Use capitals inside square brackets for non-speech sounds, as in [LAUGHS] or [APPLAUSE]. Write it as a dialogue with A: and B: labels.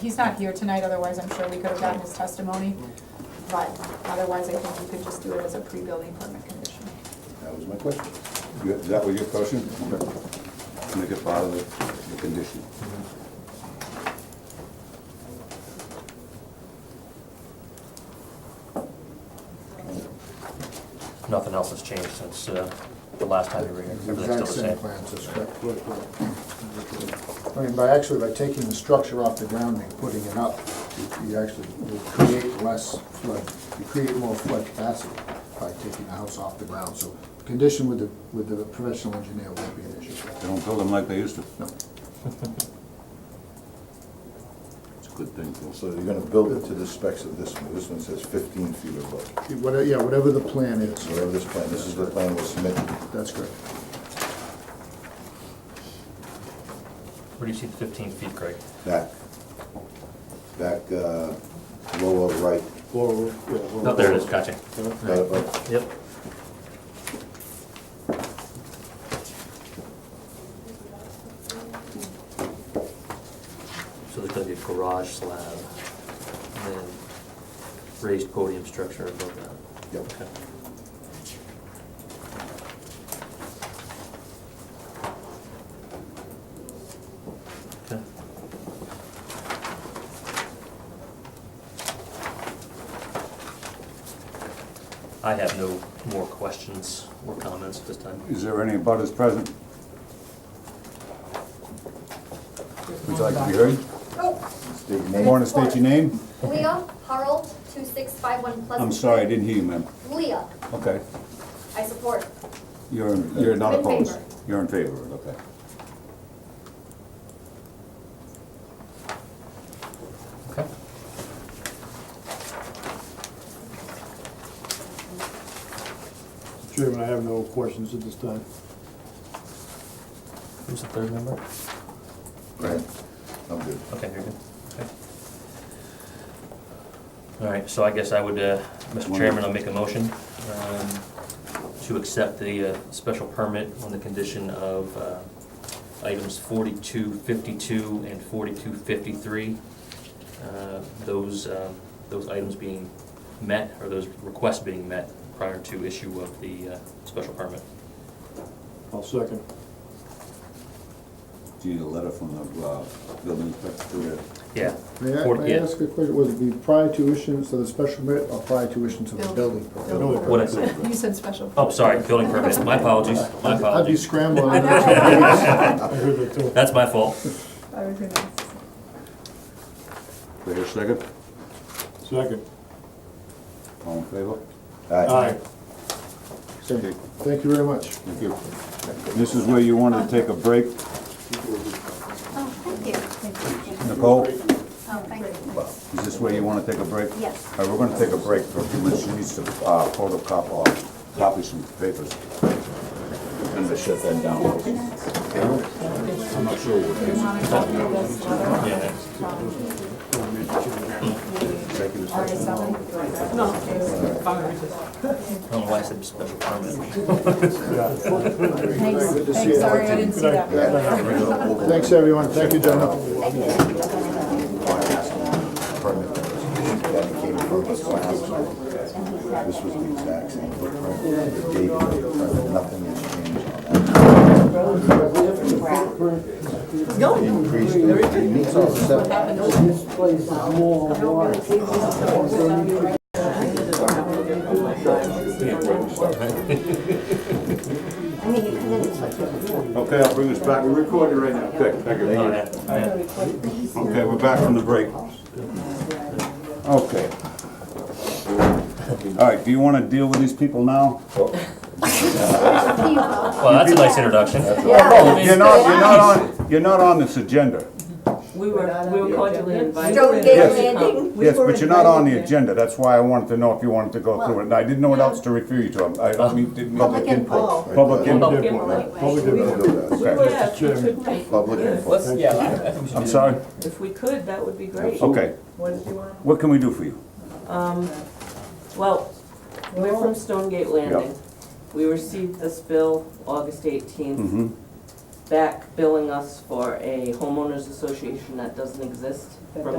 A: he's not here tonight, otherwise I'm sure we could have gotten his testimony. But otherwise, I think you could just do it as a pre-building permit condition.
B: That was my question. You- Is that was your question? Okay. Make it part of the, the condition.
C: Nothing else has changed since uh, the last time you were here.
D: Exact
C: Everything's
D: same
C: still the same.
D: plans, that's correct. Good, good. I mean, by actually, by taking the structure off the ground and putting it up, you- you actually will create less flood, you create more flood capacity by taking the house off the ground. So condition with the, with the professional engineer won't be an issue.
B: They don't build them like they used to.
D: No.
B: [LAUGHS] It's a good thing, Phil.
E: So you're gonna build it to the specs of this one, this one says fifteen feet above,
D: Whatever, yeah, whatever the plan is,
E: whatever this plan, this is the plan we'll submit.
D: that's correct.
C: Where do you see the 15 feet, Greg?
E: Back, back, uh, lower right,
C: No, Oh, there it is, gotcha.
E: right above.
C: Yep. So there's gonna be a garage slab and then raised podium structure above that.
E: Yep.
C: Okay. Okay. I have no more questions or comments at this time.
B: Is there any butters present? Would you like to be heard?
F: Oh,
E: State your
B: You
E: name.
B: Want to state your name?
F: Leah Harold, 2651 Pleasant.
B: I'm sorry, I didn't hear you, ma'am.
F: Leah,
B: Okay.
F: I support.
B: You're, you're not
F: I'm in
B: opposed?
F: favor.
B: You're in favor, of it, okay.
C: Okay.
G: Chairman, I have no questions at this time.
C: Who's the third member?
E: Right, I'm good.
C: Okay, you're good. Okay. All right, so I guess I would, uh, Mr. Chairman, I'll make a motion um, to accept the uh, special permit on the condition of uh, items 4252 and 4253. uh, Those, um, those items being met, or those requests being met prior to issue of the uh, special permit.
G: I'll second.
B: Do you need a letter from the, uh, building inspector?
C: Yeah.
D: May I,
C: Or-
D: may I
C: yeah.
D: ask a question, would it be prior to issuance of the special permit or prior to issuance of the building permit?
G: Building.
C: What I said,
A: You said special.
C: oh, sorry, building permit, my apologies, my
D: I'd be
C: apologies. [LAUGHS]
D: scrambling.
A: I know.
G: I heard that too.
C: That's my fault.
A: That would be nice.
B: Wait a second,
G: Second.
B: all in favor?
G: Aye.
B: Okay,
D: Thank you very much.
B: Thank you. This is where you wanted to take a break,
F: Oh, thank you. Thank you.
B: Nicole?
F: Oh, thank you.
B: Is this where you want to take a break?
F: Yes.
B: All right, we're going to take a break for a few minutes. She needs to uh, photocop or copy some papers.
E: I'm gonna shut that down.
C: I don't know why I said special permit.
A: Thanks, thanks, sorry, I didn't see that.
D: Thanks, everyone, thank you, gentlemen.
E: Permit that came from us last time. This was the exact same footprint, the date of the permit, nothing has changed on that. Increased, it meets all the setbacks.
B: Okay, I'll bring us back. We're recording right now. Okay, thank you. Okay, we're back from the break. Okay. All right, do you want to deal with these people now?
C: Well, that's a nice introduction.
B: Oh, You're not, you're not on, you're not on this agenda.
H: We were, we were cordially invited.
F: Stone Gate Landing.
B: Yes, but you're not on the agenda. That's why I wanted to know if you wanted to go through it. And I didn't know what else to refer you to. I I mean, didn't.
E: Public input.
B: Public input.
C: Public
H: input.
G: Public input.
H: Yeah, if we
G: Chairman.
H: could,
E: Public input.
B: I'm sorry?
H: if we could, that would be great.
B: Okay,
H: What did you want?
B: what can we do for you?
H: Well, we're from Stone Gate Landing. We received this bill August eighteenth,
B: Mhm.
H: back billing us for a homeowners association that doesn't exist.